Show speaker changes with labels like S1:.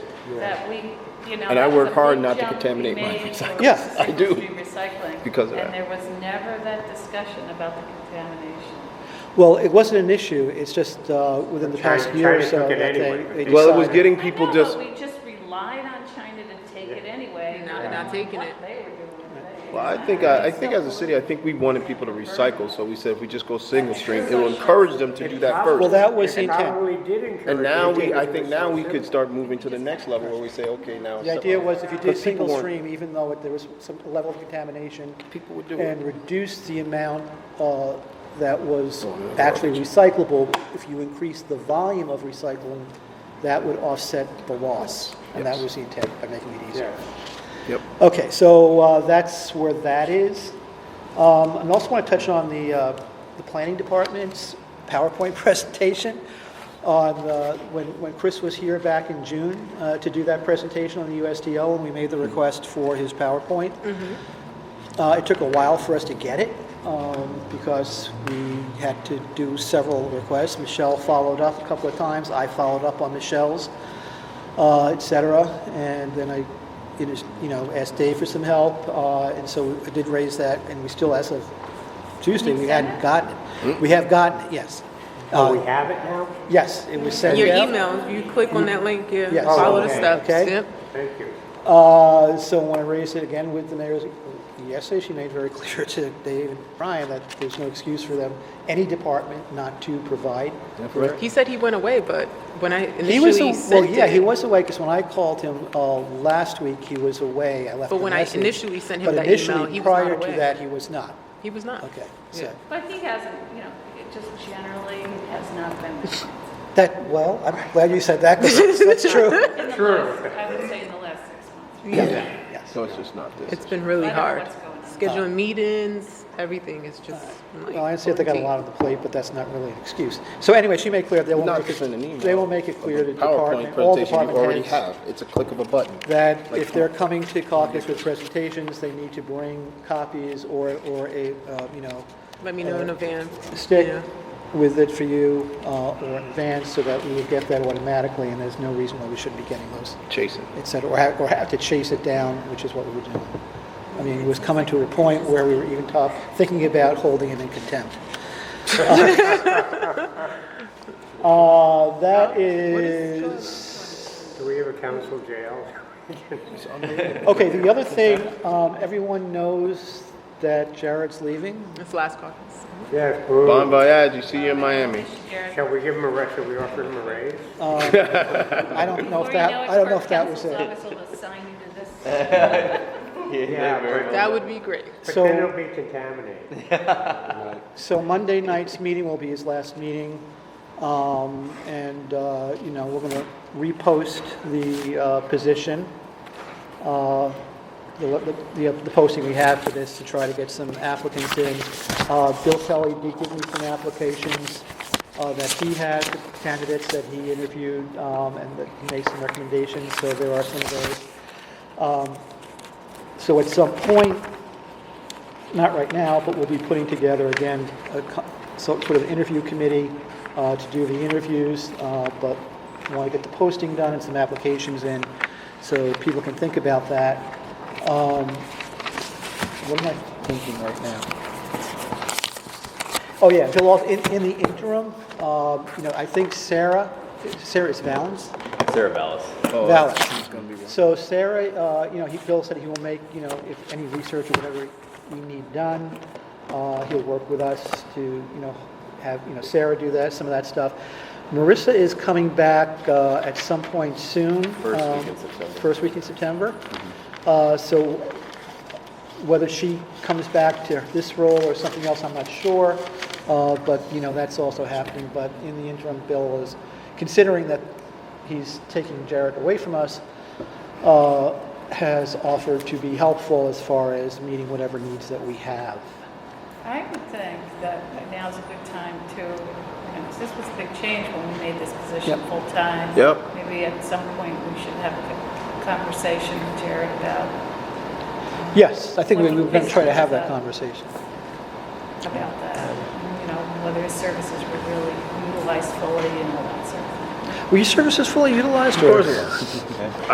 S1: that we, you know.
S2: And
S1: that
S2: I
S1: was
S2: work
S1: a
S2: hard
S1: big
S2: not to
S1: jump we
S2: contaminate my
S1: made for
S2: recycling.
S3: Yeah, I
S2: do.
S1: industry Recycling.
S2: Because of that.
S1: And there was never that discussion about the contamination.
S3: Well, it wasn't an issue, it's just uh, within the
S4: China-
S3: past year or
S4: China
S3: so
S4: took
S3: that they
S4: it anyway.
S3: they decided.
S2: Well, it was
S1: I
S2: getting
S1: know,
S2: people
S1: but
S2: just,
S1: we just relied on China to take it anyway.
S5: Not-
S1: I don't
S5: not
S1: know
S5: taking
S1: what
S5: it.
S1: They were doing. They-
S2: well, I
S3: uh,
S2: think, I I think as a city, I think we wanted people to recycle, so we said if we just go single stream, it will encourage them to do that
S3: Well,
S2: first.
S3: that was the
S4: It
S3: intent.
S4: probably did encourage.
S2: And now
S4: it,
S2: we,
S4: taking
S2: I
S4: it
S2: think
S4: as
S2: now we
S4: so
S2: could
S4: simple.
S2: start moving to the next level where we say, okay, now. it's
S3: The idea
S2: something-
S3: was if you did
S2: Because people
S3: single
S2: weren't-
S3: stream, even though there was some level of contamination,
S2: People would do it.
S3: and reduce the amount uh, that was
S2: Oh,
S3: actually recyclable, if you increase the volume of recycling, that would offset the loss. And that was the intent by making it easier.
S2: Yep.
S3: Okay, so uh, that's where that is. Um, And also want to touch on the, uh, the planning department's PowerPoint presentation on, uh, when, when Chris was here back in June uh, to do that presentation on the USDO, and we made the request for his PowerPoint. Uh, It took a while for us to get it um, because we had to do several requests. Michelle followed up a couple of times, I followed up on Michelle's, uh, et cetera. And then I, it is- you know, asked Dave for some help, uh, and so I did raise that, and we still, as of Tuesday, we hadn't gotten it. We have gotten it, yes.
S4: Oh,
S3: Uh,
S4: we have it now?
S3: Yes, it was sent out.
S5: Your email, you click on that link, yeah,
S3: Yes. Oh,
S5: follow the
S4: Okay.
S5: steps,
S3: Okay.
S5: yep.
S4: Thank you.
S3: Uh, So when I raised it again with the mayor yesterday, she made very clear to Dave and Brian that there's no excuse for them, any department, not to provide. for-
S5: He said he went away, but when I
S3: He was,
S5: initially
S3: a- well,
S5: sent
S3: yeah, he
S5: it,
S3: was away, because when I called him uh, last week, he was away, I left a
S5: But when I
S3: message.
S5: initially sent him
S3: But
S5: that email,
S3: initially,
S5: he was not
S3: prior to
S5: away.
S3: that, he was not,
S5: he was not.
S3: okay,
S5: Yeah.
S3: so,
S1: But he hasn't, you know, it just generally has not been.
S3: that, well, I'm glad you said that, 'cause that's that's true,
S1: In the last, I would say in the last six months.
S3: yes.
S2: So it's just not this.
S5: It's been really
S1: I don't know
S5: hard.
S1: what's going on.
S5: Scheduling meetings, everything is just like.
S3: Uh, Well, I understand they got a lot on the plate, but that's not really an excuse. So anyway, she made clear they won't
S2: Not
S3: make it.
S2: just in an email.
S3: They will make it clear to
S2: PowerPoint
S3: department, all
S2: presentation you
S3: department
S2: already
S3: heads
S2: have. It's a click of a button.
S3: that if they're coming to caucus with presentations, they need to bring copies or, or a, uh, you know,
S5: Let me know in advance.
S3: stick
S5: Yeah.
S3: with it for you uh, or in advance so that we will get that automatically and there's no reason why we shouldn't be getting those,
S2: Chasing.
S3: et cetera, or have, or have to chase it down, which is what we were doing. I mean, it was coming to a point where we were even talk, thinking about holding it in contempt. Uh, that is.
S4: Do we have a council jail?
S3: Okay, the other thing, um, everyone knows that Jared's leaving.
S5: It's last caucus.
S4: Yes,
S2: Bon
S4: boo.
S2: voyage, you see you in Miami.
S1: Jared,
S4: Shall we give him a rest, shall we offer him a raise?
S3: I don't know
S1: before
S3: if
S1: you
S3: that,
S1: know it,
S3: I don't know
S1: Park
S3: if that was
S1: Council's
S3: it.
S1: office will assign you to this.
S4: Yeah, but-
S5: That would be great.
S4: But
S3: So-
S4: then it'll be contaminated.
S3: So Monday night's meeting will be his last meeting. Um, and, uh, you know, we're gonna repost the, uh, position, uh, the, the, the posting we have for this to try to get some applicants in. Uh, Bill Kelly did give me some applications, uh, that he had, candidates that he interviewed, um, and that he made some recommendations, so there are some of those. Um, So at some point, not right now, but we'll be putting together again, a co- so- sort of interview committee uh, to do the interviews, uh, but want to get the posting done and some applications in, so people can think about that. Um, What am I thinking right now? Oh, yeah, Bill, also- in, in the interim, uh, you know, I think Sarah, Sarah is Valens?
S6: Sarah Vallis.
S3: Valid.
S2: It's gonna be one.
S3: So Sarah, uh, you know, he, Bill said he will make, you know, if any research or whatever we need done, uh, he'll work with us to, you know, have, you know, Sarah do that, some of that stuff. Marissa is coming back, uh, at some point soon.
S6: First week in
S3: um,
S6: September. Mm-hmm.
S3: First week in September. Uh, so whether she comes back to this role or something else, I'm not sure. Uh, But, you know, that's also happening. But in the interim, Bill is considering that he's taking Jared away from us, uh, has offered to be helpful as far as meeting whatever needs that we have.
S1: I would think that now's a good time to, you know, 'cause this was a big change when we made this position
S3: Yep.
S1: full-time.
S2: Yep.
S1: Maybe at some point, we should have a conversation with Jared about,
S3: Yes, I think we we're going to try to have that conversation.
S1: about that, you know, whether his services were really utilized fully and all that sort of thing.
S3: Were your services fully utilized? Of course.